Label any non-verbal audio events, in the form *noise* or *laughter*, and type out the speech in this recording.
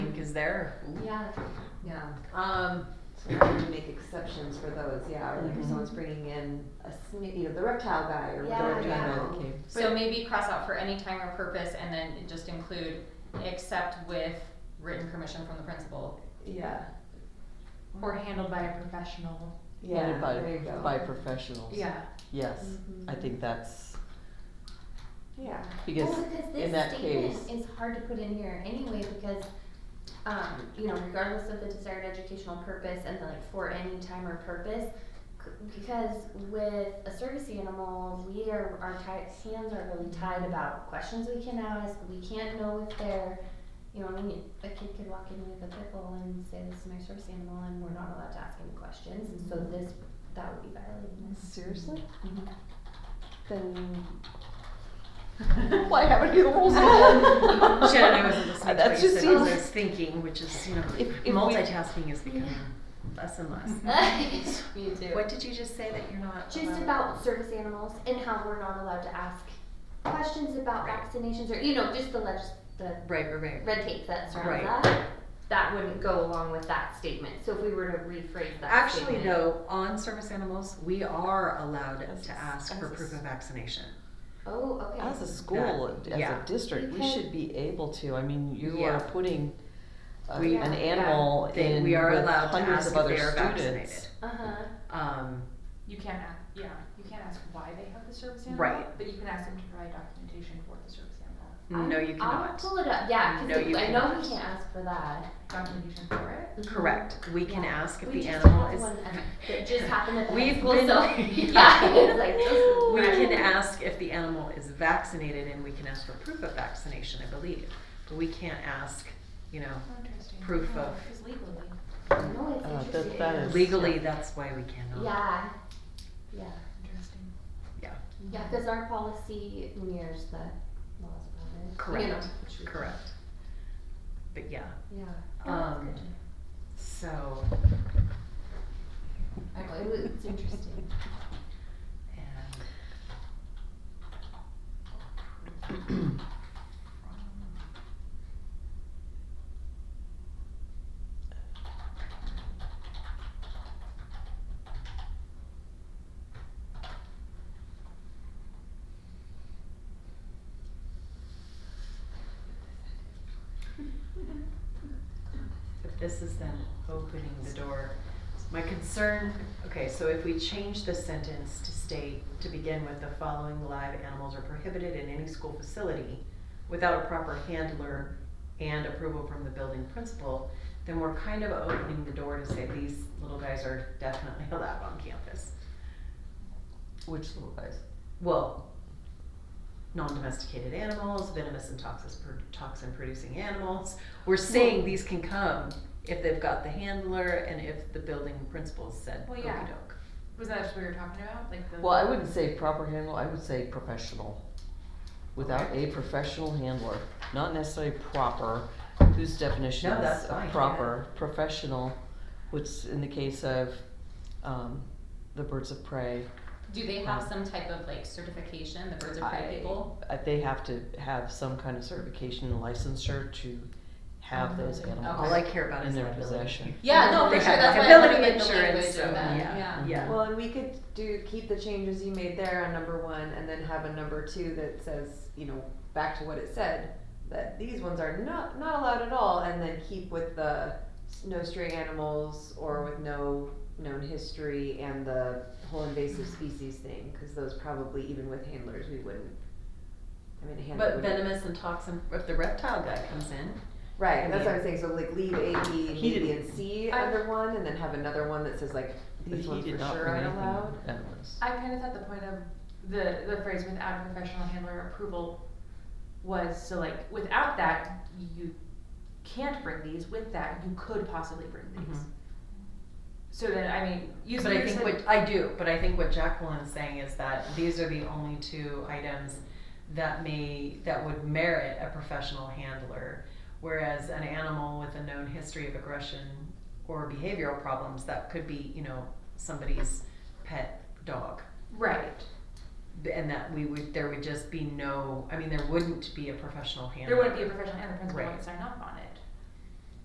is there. Ooh. Yeah, Yeah, um, so we can make exceptions for those, yeah, or like Mhm. if someone's bringing in a, sni- you know, the reptile guy or Yeah, whatever. yeah. animal. Okay. So maybe cross out for any time or purpose and then just include except with written permission from the principal. Yeah, Or handled by a professional. yeah, By- there you go. By professionals. Yeah. Yes, Mm-hmm. I think that's, Yeah, because well, because Oh, this in that statement is case, hard to put in here anyway because um, you know regardless of the desired educational purpose and the, like for any time or purpose c- because with a service animal we are our ti- hands are really tied about questions we can ask we can't know if they're you know I mean a kid could walk in with a pit bull and say this is my service animal and we're not allowed to ask any questions and so this that would be violating this *laughs* seriously? Then. Why haven't you the *laughs* rules? Shannon, I wasn't listening to That what you just said, 'cause I seems- was thinking, which is, you know, If- if we- multitasking is becoming less and Mm-hmm. less. *laughs* me too What did you just say that you're not? just allowed- about service animals and how we're not allowed to ask questions about vaccinations or you know just the legis the Right, right, right. red tape that surrounds Right. that. That wouldn't go along with that statement. So if we were to rephrase that, Actually, statement, though, on service animals, we are allowed As to a- ask as for a proof s- of vaccination. Oh, okay. as a school, as a yeah. district, we Okay. should be able to, I mean, you are Yeah. putting a- We- an animal They- in we are with allowed to hundreds ask of if other they are students. vaccinated. Uh huh. Um, You can't ask, yeah, you can't ask why they have the service animal. Right. But you can ask them to provide documentation for the service animal. no, you I'll cannot. pull it up. Yeah, No, because you I know we cannot. can't ask for that. Documentation for it. Mhm. Correct. We can Yeah. ask if We the just animal had is. *laughs* one, uh, that just happened at the high We've school, been- *laughs* so- yeah, *laughs* it's like just We right. can ask if the animal is vaccinated and we can ask for proof of vaccination, I believe. But we can't ask, you know, Oh, interesting. Proof Yeah, of- Because legally. No, it's Uh, that- interesting. that is- legally, that's why we cannot. Yeah. Yeah. Interesting. Yeah. Yeah, because our policy mirrors the laws of others. Correct. You know, which we- Correct. But yeah, Yeah. Oh, um, so, I know, it was, it's interesting. and. um, *laughs* But this is then opening the door. My concern, okay, so if we change the sentence to state, to begin with, the following live animals are prohibited in any school facility without a proper handler and approval from the building principal, then we're kind of opening the door to say these little guys are definitely *laughs* allowed on campus. Which little guys? Well, non-domesticated animals, venomous and toxis- pro- toxin-producing animals. We're saying these can come if they've got the handler and if the building principal said Well, okey yeah. doke. Was that what we were talking about? Like the. Well, I wouldn't say proper handle, I would say professional. Without a professional handler, not necessarily proper, whose definition No, is that's of fine, yeah. proper, professional, which in the case of, um, the birds of prey. Do they have some type of like certification, the birds are I- pretty people? I- They have to have some kind of certification and licensure to have those All animals Oh, I care about in is their liability. possession. Yeah, no, They for sure, have that's why I liability wanted like the insurance, language so, of that, yeah. yeah. Yeah. well, and we could do, keep the changes you made there on number one and then have a number two that says, you know, back to what it said. That these ones are not, not allowed at all and then keep with the s- no stray animals or with no known history and the whole invasive species thing. Cause those probably, even with handlers, we wouldn't, I mean, a handler But would venomous and toxin, if the reptile guy comes in, Right, I that's what I'm saying, so like leave A, B, He B, B, didn't- and C I- under one, and then have another one that says like, But these he ones did for not sure bring aren't anything allowed. venomous. I kind of thought the point of the, the phrase without a professional handler approval was, so like, without that, you can't bring these, with that, you could possibly bring these. Mhm. So then, I mean, using But I your think sen- what, I do, but I think what Jacqueline is saying is that these are the only two items that may, that would merit a professional handler. Whereas an animal with a known history of aggression or behavioral problems, that could be, you know, somebody's pet dog. Right, And that we would, there would just be no, I mean, there wouldn't be a professional handler. there wouldn't be a professional and the principal Right. wouldn't sign off on it.